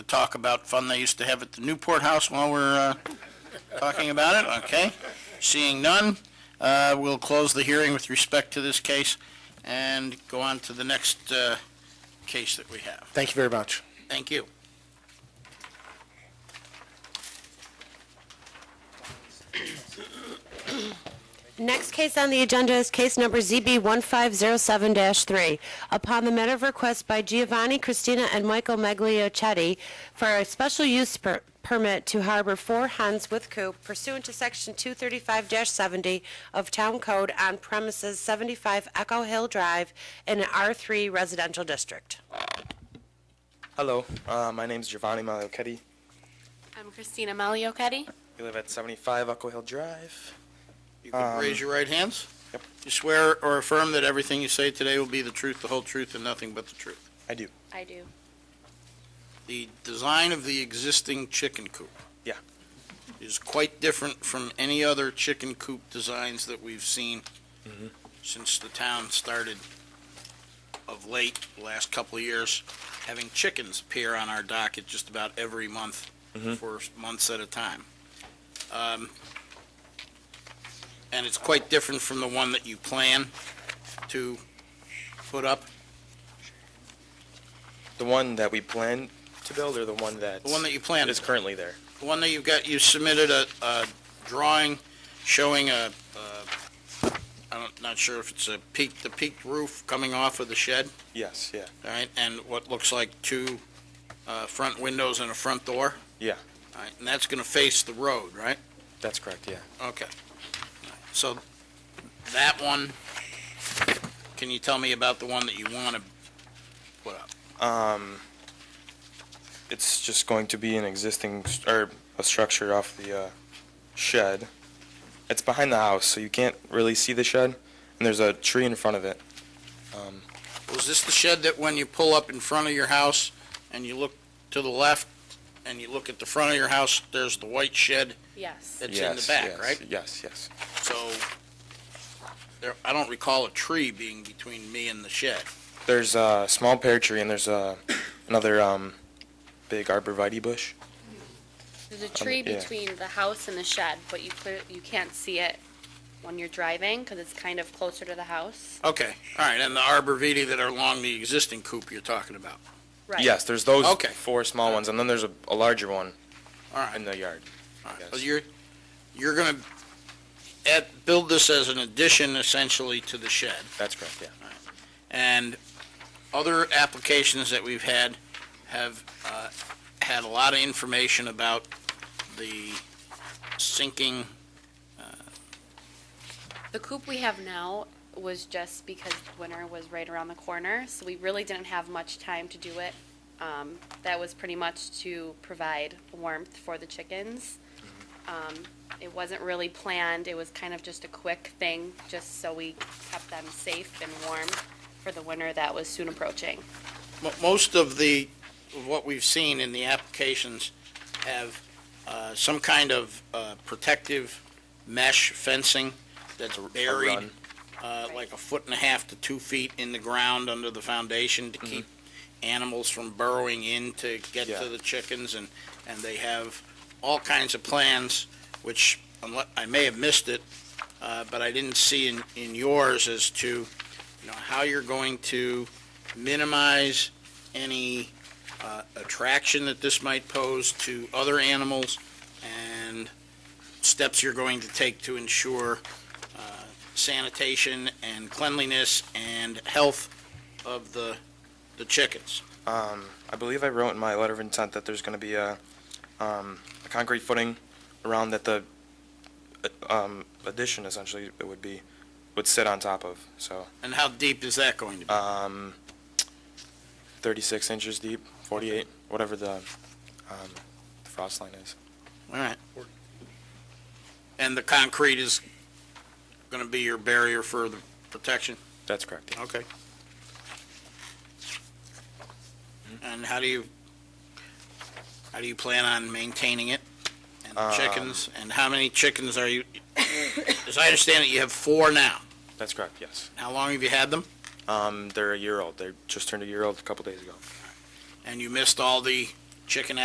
talk about fun they used to have at the Newport House while we're uh, talking about it? Okay. Seeing none, uh, we'll close the hearing with respect to this case and go on to the next uh, case that we have. Thank you very much. Thank you. Next case on the agenda is case number ZB1507-3. Upon the matter of request by Giovanni, Christina, and Michael Magliochetti for a special use per- permit to harbor four hens with coop pursuant to Section 235-70 of Town Code on premises 75 Echo Hill Drive in an R3 residential district. Hello, uh, my name is Giovanni Maliochetti. I'm Christina Maliochetti. We live at 75 Echo Hill Drive. You can Um, raise your right hands. Yep. You swear or affirm that everything you say today will be the truth, the whole truth, and nothing but the truth. I do. I do. The design of the existing chicken coop. Yeah. Is quite different from any other chicken coop designs that we've seen Mm-hmm. since the town started of late, the last couple of years, having chickens appear on our docket just about every month Mm-hmm. for months at a time. Um, And it's quite different from the one that you plan to put up, The one that we plan to build or the one that the one that you planned. is currently there? The one that you've got, you submitted a, a drawing showing a, a- I'm not sure if it's a peak, the peaked roof coming off of the shed, Yes, yeah. all right, and what looks like two, uh, front windows and a front door? Yeah. All right, and that's gonna face the road, right? That's correct, yeah. Okay. So that one, can you tell me about the one that you wanna put up? Um, it's just going to be an existing, st- or a structure off the uh, shed. It's behind the house, so you can't really see the shed, and there's a tree in front of it. Um, Was this the shed that when you pull up in front of your house and you look to the left and you look at the front of your house, there's the white shed Yes. that's in the yes, back, yes, right? Yes, yes. So there, I don't recall a tree being between me and the shed. There's a small pear tree and there's a another um, big arborvitae bush. There's a tree yeah. between the house and the shed, but you clear, you can't see it when you're driving because it's kind of closer to the house. Okay, all right, and the arborvitae that are along the existing coop you're talking about. Right. Yes, there's those Okay. four small ones and then there's a, a larger one All right, in the yard. all right. So yes. you're, you're gonna add, build this as an addition essentially to the shed. That's correct, yeah. And other applications that we've had have uh, had a lot of information about the sinking, The coop we have now was just because winter was right around the corner, so we really didn't have much time to do it. Um, that was pretty much to provide warmth for the chickens. Um, it wasn't really planned, it was kind of just a quick thing, just so we kept them safe and warm for the winter that was soon approaching. mo- most of the, of what we've seen in the applications have uh, some kind of uh, protective mesh fencing that's buried, run. uh, like a foot and a half to two feet in the ground under the foundation to keep animals from burrowing in to get Yeah. to the chickens, and, and they have all kinds of plans, which, unle- I may have missed it, uh, but I didn't see in, in yours as to, you know, how you're going to minimize any uh, attraction that this might pose to other animals, and steps you're going to take to ensure uh, sanitation and cleanliness and health of the, the chickens. Um, I believe I wrote in my letter of intent that there's going to be a, um, a concrete footing around that the uh, um, addition essentially it would be would sit on top of. So And how deep is that going to be? um, 36 inches deep, 48, whatever the, um, the frost line is. All right. And the concrete is going to be your barrier for the protection? That's correct. yeah. Okay. And how do you, how do you plan on maintaining it? And the chickens, and how many chickens are you, as I understand it, you have four now. That's correct. Yes. How long have you had them? Um, they're a year old. They just turned a year old a couple days ago. And you missed all the chicken